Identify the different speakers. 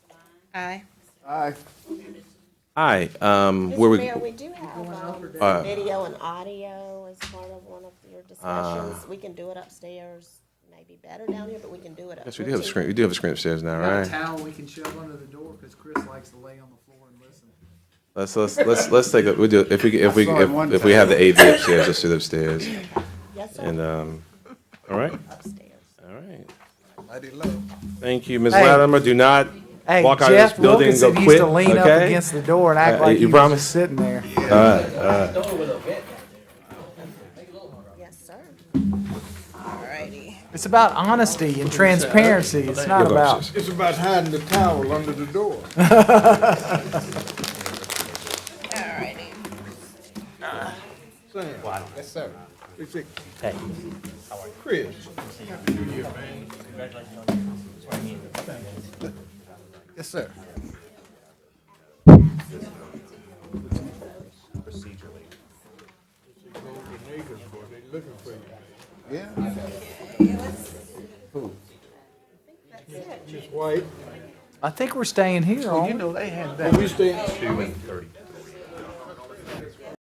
Speaker 1: Aye.
Speaker 2: Aye.
Speaker 3: Aye, um, where
Speaker 4: Mr.
Speaker 3: we,
Speaker 4: Mayor, we do have, um,
Speaker 3: Uh,
Speaker 4: video and audio as part of one of your
Speaker 3: Uh,
Speaker 4: discussions. We can do it upstairs, maybe better down here, but we can do it upstairs.
Speaker 3: yes, we do have a screen, we do have a screen upstairs now,
Speaker 2: Got a
Speaker 3: right?
Speaker 2: towel we can shove under the door because Chris likes to lay on the floor and listen.
Speaker 3: Let's, let's, let's, let's take, a- we do, if we, if we,
Speaker 2: saw it one
Speaker 3: if if we have the AV upstairs, let's do it upstairs.
Speaker 4: Yes, sir,
Speaker 3: And, um, all right,
Speaker 4: upstairs.
Speaker 3: all right.
Speaker 5: Mighty low.
Speaker 3: Thank you, Ms.
Speaker 2: Hey.
Speaker 3: Latimer, do not
Speaker 2: Hey,
Speaker 3: walk out of this
Speaker 2: Jeff
Speaker 3: building and go
Speaker 2: Wilkinson used
Speaker 3: quit,
Speaker 2: to lean up
Speaker 3: okay?
Speaker 2: against the door and
Speaker 3: Uh,
Speaker 2: act like
Speaker 3: you
Speaker 2: he was
Speaker 3: promise?
Speaker 2: just sitting there.
Speaker 4: Yes, sir.
Speaker 1: Alrighty.
Speaker 2: It's about honesty and transparency. It's not
Speaker 3: You'll go
Speaker 2: about.
Speaker 3: upstairs.
Speaker 5: It's about hiding the towel under the door.
Speaker 1: Alrighty.
Speaker 5: Sam. Yes, sir. It's it. Chris. Yes, sir. Yeah. Who? Miss White.
Speaker 2: I think we're staying here. aren't we?
Speaker 5: Are we staying? Two and thirty.